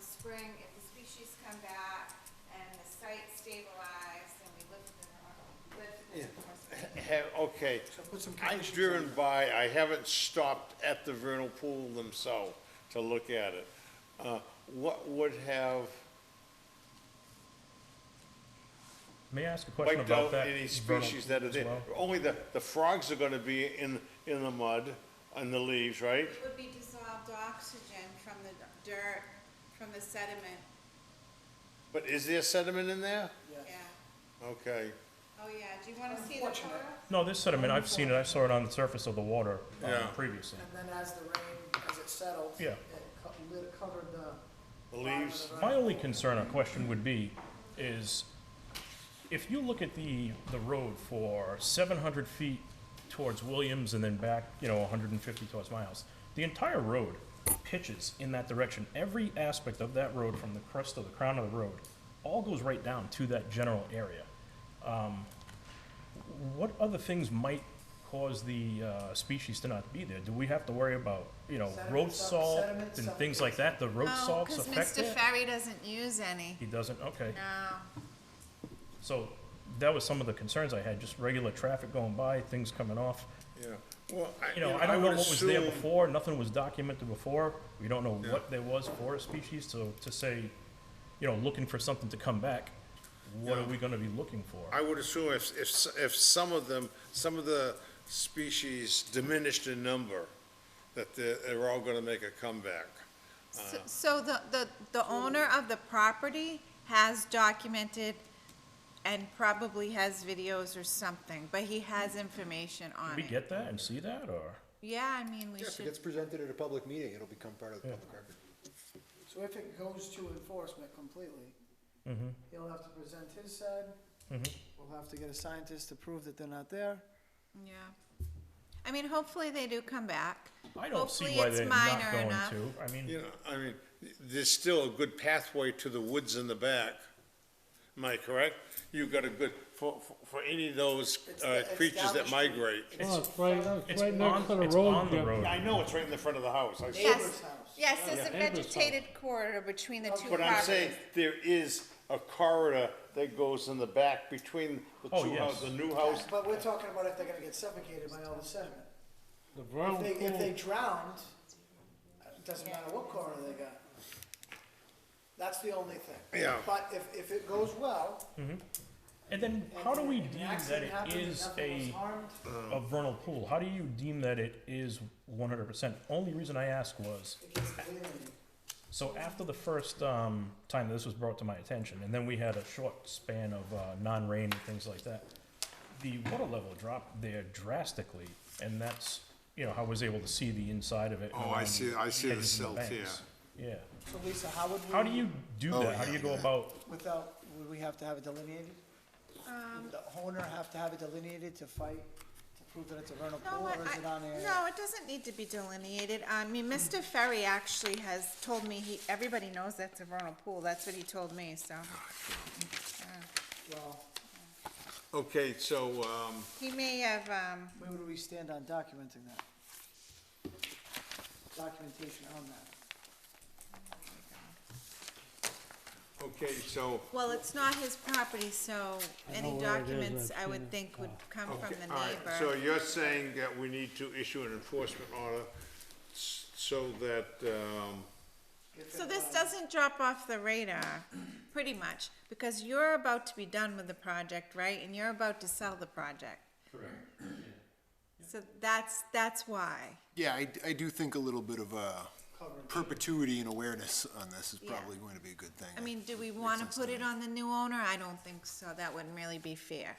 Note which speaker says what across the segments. Speaker 1: spring, if the species come back and the site stabilized and we live in the, live in the more space.
Speaker 2: Have, okay,
Speaker 3: put some
Speaker 2: I'm
Speaker 3: conditions
Speaker 2: driven by, I haven't stopped at the vernal pool themselves to look at it. Uh, What would have
Speaker 4: May I ask a question
Speaker 2: wiped
Speaker 4: about
Speaker 2: out
Speaker 4: that?
Speaker 2: any
Speaker 4: vernal
Speaker 2: species that are
Speaker 4: as
Speaker 2: there?
Speaker 4: well?
Speaker 2: Only the, the frogs are gonna be in, in the mud, and the leaves, right?
Speaker 1: It would be dissolved oxygen from the dirt, from the sediment,
Speaker 2: But is there sediment in there?
Speaker 1: yeah.
Speaker 2: Okay,
Speaker 1: Oh, yeah, do you wanna see the
Speaker 3: Unfortunate.
Speaker 1: photo?
Speaker 4: No, this sediment, I've seen it, I saw it on the surface of the water um,
Speaker 2: Yeah.
Speaker 4: previously.
Speaker 3: And then as the rain, as it settled.
Speaker 4: Yeah.
Speaker 3: It co- lit- covered the.
Speaker 2: the
Speaker 3: bottom of
Speaker 2: leaves,
Speaker 3: the
Speaker 4: My
Speaker 3: road.
Speaker 4: only concern or question would be, is if you look at the, the road for seven hundred feet towards Williams and then back, you know, hundred and fifty towards Miles, the entire road pitches in that direction. Every aspect of that road, from the crest to the crown of the road, all goes right down to that general area. Um, What other things might cause the, uh, species to not be there? Do we have to worry about, you know, road
Speaker 3: Sediment, sub-
Speaker 4: salt
Speaker 3: sediment,
Speaker 4: and
Speaker 3: sub-
Speaker 4: things like that? The road
Speaker 1: Oh,
Speaker 4: salts affect that?
Speaker 1: Ferry doesn't use any.
Speaker 4: He doesn't, okay.
Speaker 1: No.
Speaker 4: So that was some of the concerns I had, just regular traffic going by, things coming off.
Speaker 2: yeah. Well, I,
Speaker 4: You know, I don't know
Speaker 2: would
Speaker 4: what was there
Speaker 2: assume-
Speaker 4: before, nothing was documented before. We don't know what there was for a species, so to say, you know, looking for something to come back, what are
Speaker 2: Yeah.
Speaker 4: we gonna be looking for?
Speaker 2: I would assume if, if, s- if some of them, some of the species diminished in number, that they're, they're all gonna make a comeback.
Speaker 1: So- So the, the, the owner of the property has documented and probably has videos or something, but he has information
Speaker 4: Did
Speaker 1: on
Speaker 4: we
Speaker 1: it.
Speaker 4: get that and see that, or?
Speaker 1: Yeah, I mean, we
Speaker 5: Yeah, if it
Speaker 1: should,
Speaker 5: gets presented at a public meeting, it'll become part of the public record.
Speaker 3: So if it goes to enforcement completely,
Speaker 4: Mm-hmm.
Speaker 3: he'll have to present his side. We'll have to get a scientist to prove that they're not there.
Speaker 1: yeah. I mean, hopefully they do come back.
Speaker 4: I don't see
Speaker 1: Hopefully
Speaker 4: why
Speaker 1: it's
Speaker 4: they're not
Speaker 1: minor
Speaker 4: going
Speaker 1: enough.
Speaker 4: to. I mean,
Speaker 2: You know, I mean, there's still a good pathway to the woods in the back. Am I correct? You've got a good, for, for- for any of those
Speaker 3: It's
Speaker 2: uh,
Speaker 3: the
Speaker 2: creatures that
Speaker 3: establishment.
Speaker 2: migrate.
Speaker 6: Well, Oh, it's right,
Speaker 4: it's
Speaker 6: it's right next to
Speaker 4: on,
Speaker 6: the
Speaker 4: it's
Speaker 6: road.
Speaker 4: on the
Speaker 6: yeah.
Speaker 4: road.
Speaker 2: I know it's right in the front of the house. I see it.
Speaker 1: Yes,
Speaker 3: Neighbor's house.
Speaker 1: yes, there's a
Speaker 6: Yeah, neighbor's
Speaker 1: vegetated corridor between the two
Speaker 2: But I'm saying,
Speaker 1: properties.
Speaker 2: there is a corridor that goes in the back between the
Speaker 4: Oh,
Speaker 2: two
Speaker 4: yes.
Speaker 2: houses, the new house.
Speaker 3: But we're talking about if they're gonna get suffocated by all the sediment.
Speaker 6: The
Speaker 3: If
Speaker 6: vernal
Speaker 3: they, if they
Speaker 6: pool,
Speaker 3: drowned, it doesn't matter what corner they got. That's the only thing.
Speaker 2: Yeah.
Speaker 3: But if, if it goes well.
Speaker 4: And then
Speaker 3: and-
Speaker 4: how do we
Speaker 3: and an
Speaker 4: deem that
Speaker 3: accident
Speaker 4: it
Speaker 3: happens and
Speaker 4: is
Speaker 3: nothing was
Speaker 4: a?
Speaker 3: harmed,
Speaker 4: a vernal pool, how do you deem that it is one hundred percent? Only reason I asked was,
Speaker 3: It gets cleaned.
Speaker 4: so after the first, um, time this was brought to my attention, and then we had a short span of, uh, non-rain and things like that, the water level dropped there drastically, and that's, you know, how I was able to see the inside of it. and
Speaker 2: Oh, I
Speaker 4: around
Speaker 2: see- I see the
Speaker 4: edges and
Speaker 2: silt,
Speaker 4: banks. Yeah,
Speaker 3: So Lisa, how would we?
Speaker 4: how do you do
Speaker 2: Oh,
Speaker 4: that? How do you go about,
Speaker 3: Without, would we have to have it delineated?
Speaker 1: Um,
Speaker 3: Would the owner have to have it delineated to fight, to prove that it's a vernal
Speaker 1: No,
Speaker 3: pool,
Speaker 1: I-
Speaker 3: or is it on
Speaker 1: I-
Speaker 3: a?
Speaker 1: No, it doesn't need to be delineated. I mean, Mr. Ferry actually has told me, he, everybody knows that's a vernal pool. That's what he told me, so.
Speaker 3: Well,
Speaker 2: Okay, so, um,
Speaker 1: He may have, um,
Speaker 3: where would we stand on documenting that? Documentation on that.
Speaker 2: okay, so,
Speaker 1: Well, it's not his property, so
Speaker 6: know
Speaker 1: any
Speaker 6: where it is, Oh.
Speaker 1: documents
Speaker 6: I've
Speaker 1: I
Speaker 6: seen
Speaker 1: would
Speaker 6: it.
Speaker 1: think would come from
Speaker 2: Okay,
Speaker 1: the
Speaker 2: all right, So
Speaker 1: neighbor.
Speaker 2: you're saying that we need to issue an enforcement order s- so that, um,
Speaker 1: So this doesn't drop off the radar, pretty much, because you're about to be done with the project, right? And you're about to sell the project. Correct. So that's, that's why.
Speaker 5: Yeah, I, I do think a little bit of uh, perpetuity and awareness on this is
Speaker 1: Yeah.
Speaker 5: probably going to be a good thing.
Speaker 1: I mean, do we wanna put it on the new owner? I don't think so. That wouldn't really be fair.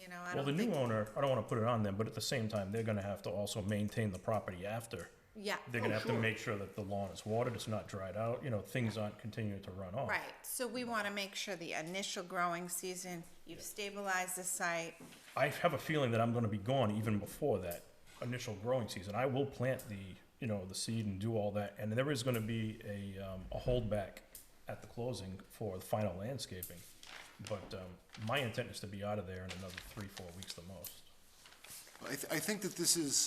Speaker 1: You know, I
Speaker 4: well, the
Speaker 1: don't
Speaker 4: new
Speaker 1: think,
Speaker 4: owner, I don't wanna put it on them, but at the same time, they're gonna have to also maintain the property after.
Speaker 1: yeah. Oh,
Speaker 4: They're gonna have to make sure that the lawn is watered, it's not dried out, you know, things aren't continuing to run off.
Speaker 1: Right, so we wanna make sure the initial growing season, you've stabilized the site,
Speaker 4: I have a feeling that I'm gonna be gone even before that initial growing season. I will plant the, you know, the seed and do all that, and there is gonna be a, um, a holdback at the closing for the final landscaping. But, um, my intent is to be out of there in another three, four weeks the most.
Speaker 5: I, th- I think that this is